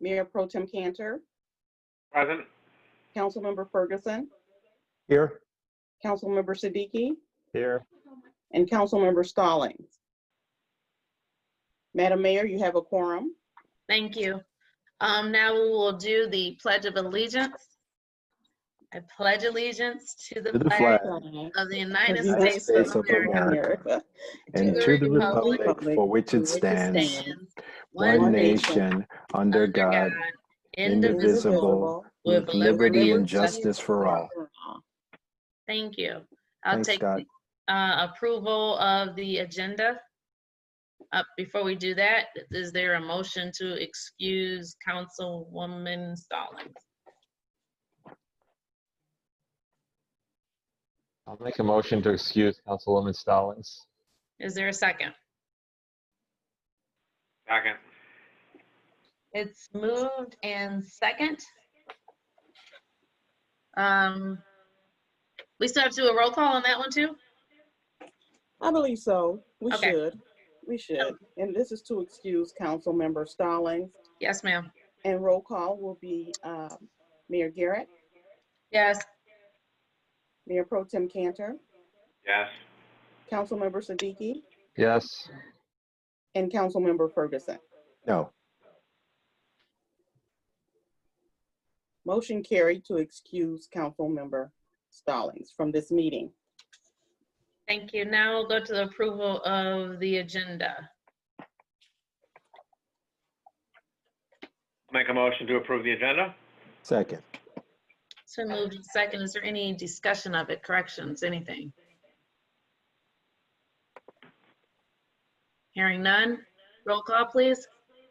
Mayor Pro Tem Cantor, Present. Councilmember Ferguson, Here. Councilmember Siddiqui, Here. and Councilmember Stallings. Madam Mayor, you have a quorum. Thank you. Um, Now we will do the Pledge of Allegiance. I pledge allegiance to the To the flag flag of the United United States States of of America. America. and the to the republic republic for which it which it stands, stands, and one one nation, under God, indivisible. indivisible, with liberty and justice for all. Thank you. I'll Thanks, take Scott. uh, approval of the agenda. Uh, Before we do that, is there a motion to excuse Councilwoman Stallings? I'll make a motion to excuse Councilwoman Stallings. Is there a second? Second. It's moved and second. Um, we still have to do a roll call on that one too? I believe so. We Okay. should. We should. And this is to excuse Councilmember Stallings. Yes, ma'am. And roll call will be um, Mayor Garrett, Yes, Mayor Pro Tem Cantor, Yes. Councilmember Siddiqui, Yes, and Councilmember Ferguson. No. Motion carried to excuse Councilmember Stallings from this meeting. thank you. Now we'll go to the approval of the agenda. Make a motion to approve the agenda? Second. It's been moved and second. Is there any discussion of it, corrections, anything? Hearing none. Roll call, please.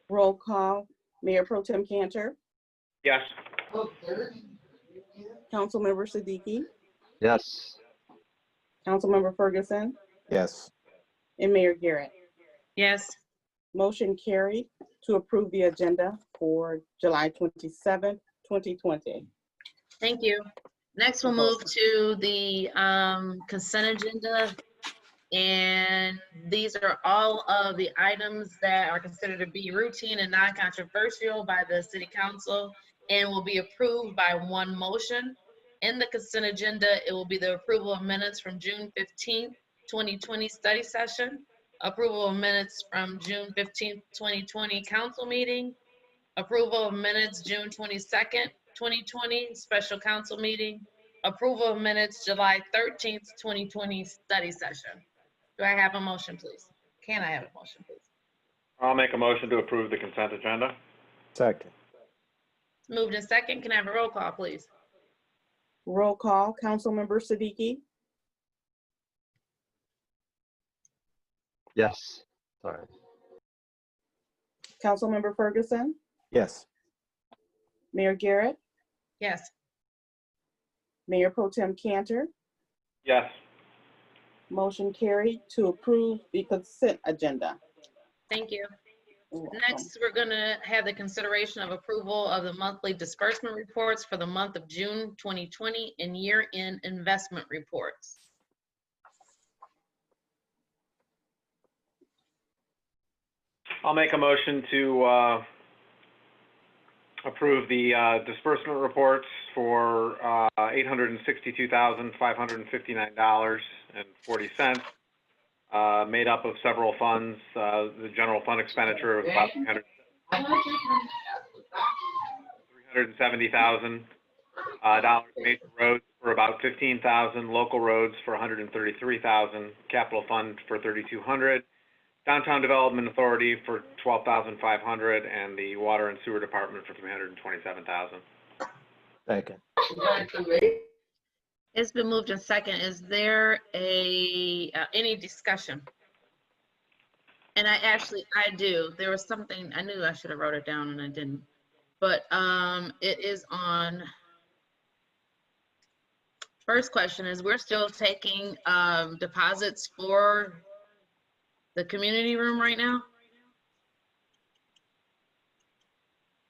Roll call, Mayor Pro Tem Cantor, Yes. Councilmember Siddiqui, yes, Councilmember Ferguson, Yes. and Mayor Garrett. Yes, Motion carried to approve the agenda for July 27, 2020. thank you. Next, we'll move to the um, consent agenda. And these are all of the items that are considered to be routine and non-controversial by the city council and will be approved by one motion. In the consent agenda, it will be the approval of minutes from June 15, 2020 study session, approval of minutes from June 15, 2020 council meeting, approval of minutes June 22nd, 2020 special council meeting, approval of minutes July 13th, 2020 study session. Do I have a motion, please? Can I have a motion, please? I'll make a motion to approve the consent agenda? Second. It's Moved in second. Can I have a roll call, please? Roll call, Councilmember Siddiqui, yes. Sorry. Councilmember Ferguson, Yes. Mayor Garrett, Yes, Mayor Pro Tem Cantor. Yes. Motion carried to approve the consent agenda. thank you. You're welcome. Next, we're gonna have the consideration of approval of the monthly disbursement reports for the month of June 2020 and year-end investment reports. I'll make a motion to uh, approve the uh, disbursement reports for uh, $862,559.40, uh, made up of several funds, uh, the general fund expenditure of about 300 $370,000, uh, dollars major roads for about 15,000, local roads for 133,000, capital fund for 3,200, Downtown Development Authority for twelve thousand five hundred, and the Water and Sewer Department for three hundred and twenty-seven thousand. Second. It's been moved in second. Is there a, uh, any discussion? And I actually, I do. There was something, I knew I should have wrote it down and I didn't. But um, it is on. First question is, we're still taking um, deposits for the community room right now?